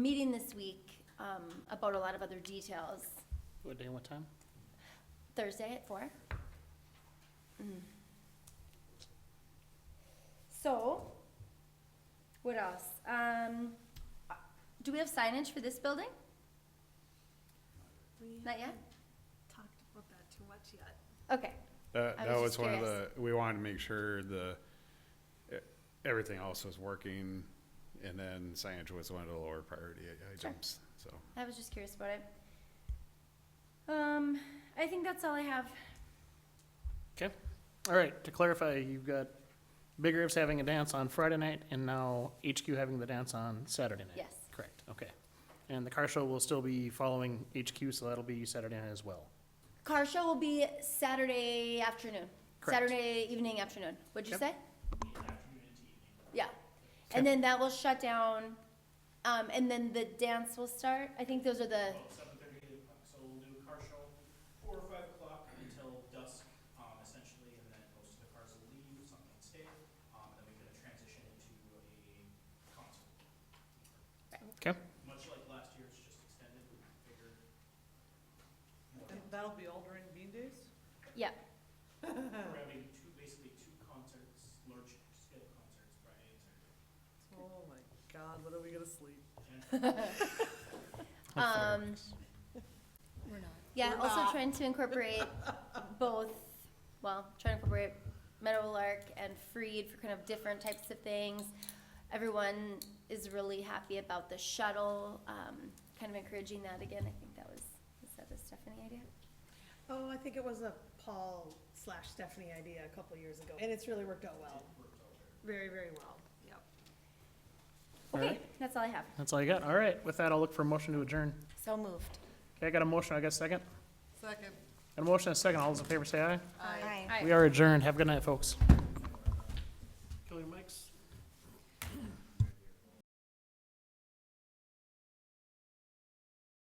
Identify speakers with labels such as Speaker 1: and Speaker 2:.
Speaker 1: meeting this week um, about a lot of other details.
Speaker 2: What day, what time?
Speaker 1: Thursday at four. Mm. So, what else? Um, uh, do we have signage for this building?
Speaker 3: We
Speaker 1: Not yet?
Speaker 3: talked about that too much yet.
Speaker 1: Okay,
Speaker 4: That,
Speaker 1: I
Speaker 4: that
Speaker 1: was just
Speaker 4: was one of the,
Speaker 1: curious.
Speaker 4: we wanted to make sure the, e- everything else was working, and then signage was one of the lower priority i- items, so.
Speaker 1: I was just curious about it. Um, I think that's all I have.
Speaker 2: All right, to clarify, you've got Big Rivers having a dance on Friday night and now HQ having the dance on Saturday night.
Speaker 1: Yes.
Speaker 2: Correct, okay. And the car show will still be following HQ, so that'll be Saturday night as well.
Speaker 1: Car show will be Saturday afternoon,
Speaker 2: Correct.
Speaker 1: Saturday evening, afternoon. What'd you
Speaker 2: Yep.
Speaker 1: say? Yeah. And then that will shut down, um, and then the dance will start. I think those are the,
Speaker 5: seven thirty, eight o'clock, so we'll do a car show, four or five o'clock until dusk, um, essentially, and then most of the cars will leave, some can stay, um, and then we're gonna transition into a concert.
Speaker 2: Okay.
Speaker 5: Much like last year's, just extended, bigger. more.
Speaker 6: And that'll be all during Bean Days?
Speaker 1: yeah,
Speaker 5: We're having two, basically two concerts, large scale concerts, Friday and Saturday.
Speaker 6: Oh my god, when are we gonna sleep?
Speaker 1: um,
Speaker 3: We're not.
Speaker 1: yeah,
Speaker 6: We're
Speaker 1: also
Speaker 6: not.
Speaker 1: trying to incorporate both, well, trying to incorporate Meadowlark and Freed for kind of different types of things. Everyone is really happy about the shuttle, um, kind of encouraging that again. I think that was, is that a Stephanie idea?
Speaker 3: Oh, I think it was a Paul slash Stephanie idea a couple years ago, and it's really worked out well. Very, very well, yep.
Speaker 2: All
Speaker 1: Okay,
Speaker 2: right.
Speaker 1: that's all I have.
Speaker 2: That's all you got. All right, with that, I'll look for a motion to adjourn.
Speaker 1: So moved.
Speaker 2: Okay, I got a motion, I got a second.
Speaker 6: Second.
Speaker 2: Got a motion, and a second. All those in favor say aye.
Speaker 6: Aye.
Speaker 2: We are adjourned. Have a good night, folks.